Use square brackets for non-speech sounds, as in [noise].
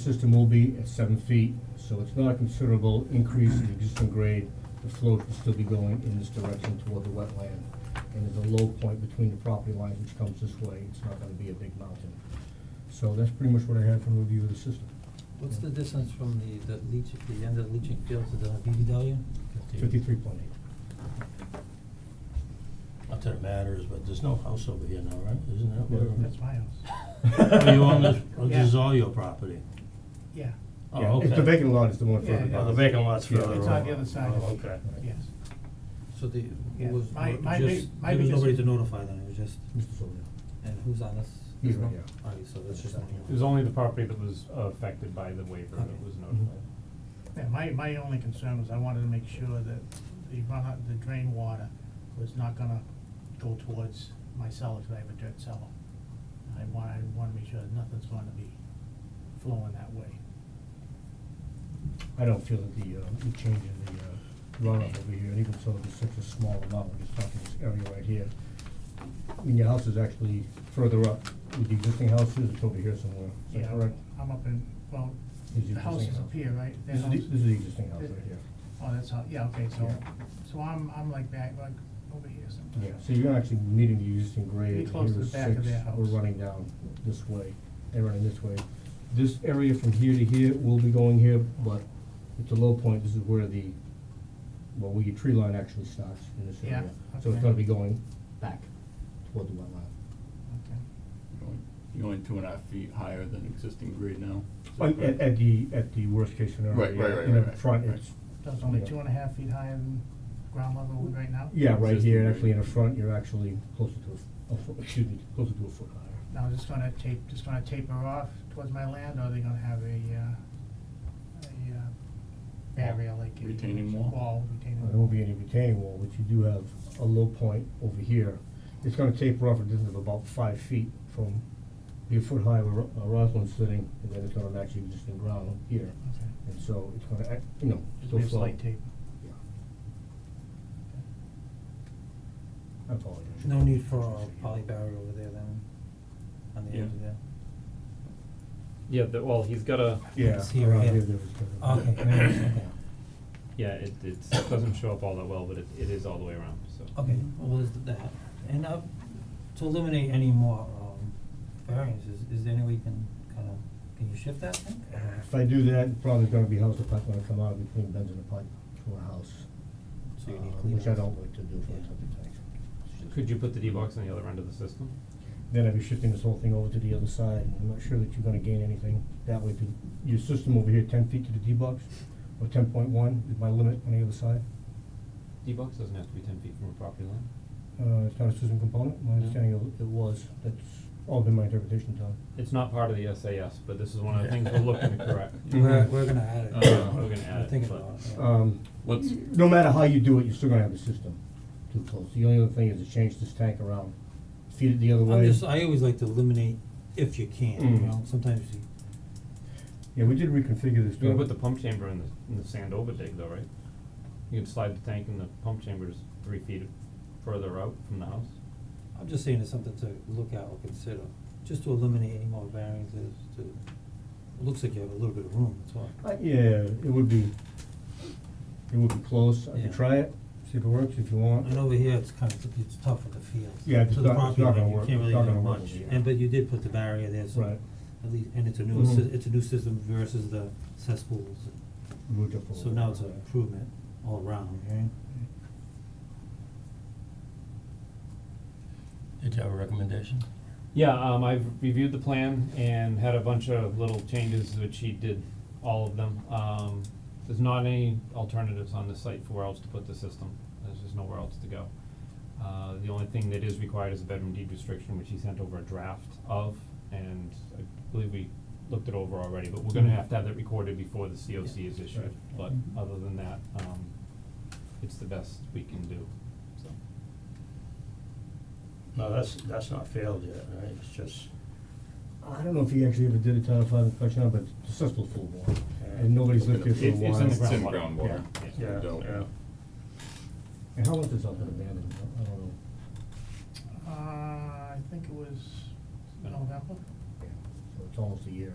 System will be at seven feet, so it's not a considerable increase in the existing grade. The float will still be going in this direction toward the wetland. And there's a low point between the property lines which comes this way. It's not gonna be a big mountain. So that's pretty much what I had from review of the system. What's the distance from the, the leach, the end of the leaching field to the BBW? Fifty-three point eight. Not that it matters, but there's no house over here now, right? Isn't that Yeah, what? That's my [laughs] house. Oh, you own this, oh, Yeah. this is all your property? Yeah, Oh, okay. It's the vacant lot is the one Yeah, further yeah. Oh, the down. vacant lot's Yeah. further over. it's on the other side Oh, of the, okay. yes. So the, who Yeah, was, my- who- my just, big- my there was biggest- nobody to notify then, it was just, Mr. Sylvia. and who's on this? He's This right one? here. Alright, so that's just. It was only the property that was affected by the waiver Okay. that was notified. Yeah, my, my only concern was I wanted to make sure that the run, the drain water was not gonna go towards my cellar, cause I have a dirt cellar. I want, I wanna make sure that nothing's gonna be flowing that way. I don't feel that the, uh, the change in the, uh, runoff over here, and even so, it's such a small amount, we're just talking this area right here. I mean, your house is actually further up with the existing houses, it's over here somewhere, is that Yeah, correct? I'm up in, well, Is it the house existing is house? up here, right? That This is, the- house- this is the existing house right here. Oh, that's how, yeah, okay, so, Yeah. so I'm, I'm like back, like, over here sometime. Yeah, so you're actually meeting the existing grade, Pretty close to here is the back of six, their house. we're running down this way, and running this way. This area from here to here will be going here, but it's a low point, this is where the, well, where your tree line actually starts in this Yeah, area. So it's okay. gonna be going back toward the wetland. Okay. You're only- You're only two and a half feet higher than existing grade now. Is that At, correct? at the, at the worst case scenario, Right, right, yeah. right, in the right, right, front, right. it's, So it's only Yeah. two and a half feet higher than ground level right now? yeah, right Existing here, grade. actually in the front, you're actually closer to a, f- a foot, excuse me, closer to a foot higher. Now, just gonna tape, just gonna taper off towards my land, or are they gonna have a, uh, a, uh, barrier like a. Retaining wall? Wall, retaining There wall. won't be any retaining wall, but you do have a low point over here. It's gonna taper off a distance of about five feet from your foot high where Ro- uh, Roslyn's sitting, and then it's gonna match the existing ground here. Okay. And so it's gonna act, you know, Just still be a flow. slight taper. Yeah. I apologize. No need for a poly barrier over there then, on the Yeah. edge of there. Yeah, the, well, he's got a, Yeah, It's here, around yeah. here there was gonna be- Okay, there it is, okay, yeah, it, it's, it doesn't show up all that well, but it, it is all the way around, so. okay, well, is that, and uh, to eliminate any more, um, variances, is there any way you can kinda, can you shift that thing? Uh, If I do that, it's probably gonna be how's the pipe gonna come out between Ben's and the pipe to our house? So you need uh, clean Which I outs. don't like to do for a Yeah. septic tank. Could you put the D-box on the other end of the system? then I'd be shifting this whole thing over to the other side, and I'm not sure that you're gonna gain anything that way. Do- Your system over here, ten feet to the D-box, or ten point one is my limit on the other side. D-box doesn't have to be ten feet from a property line. Uh, it's not a system component, my No. understanding of it was, that's all been my interpretation, Tom. It's not part of the SAS, but this is one of the things we're looking to correct. [laughs] We're, we're gonna add it. Uh, Mm-hmm. Oh, we're gonna add We're it, thinking but- Oh, about it, yeah. Um, Let's, no matter how you do it, you're still gonna have the system too close. The only other thing is to change this tank around, feed it the other I'm way. just, I always like to eliminate if you can, you Mm. know, sometimes you, Yeah, we did reconfigure this. You're gonna to- put the pump chamber in the, in the sand over dig though, right? You can slide the tank in the pump chambers three feet further out from the house. I'm just saying it's something to look at or consider, just to eliminate any more variances to, it looks like you have a little bit of room, that's all. Uh, yeah, it would be, it would be close. I Yeah. could try it, see if it works, if you want. And over here, it's kind of, it's tough with the field, Yeah, it's to the not- it's property not line, gonna you work- can't it's really not do gonna work much, over here. and but you did put the barrier there, so Right. at least, and it's a newer, Mhm. sys- it's a new system versus the cesspools, We would just- so now it's an improvement all around, right? Did you have a recommendation? Yeah, um, I've reviewed the plan and had a bunch of little changes, which he did all of them. Um, there's not any alternatives on the site for where else to put the system. There's just nowhere else to go. Uh, the only thing that is required is a bedroom deed restriction, which he sent over a draft of, and I believe we looked it over already, but we're gonna have to have that recorded before the COC is issued. But other than that, um, it's the best we can do, so. No, that's, that's not failed yet, right? It's just, I don't know if he actually ever did a Title V inspection, but the cesspool's full of water, and nobody's lived there for a It's- while. it's in the it's in groundwater. groundwater. Yeah. It's yeah, built. yeah. And how long has this all been abandoned? I don't know. Uh, I think it was Yeah. November, Yeah, So it's almost a year.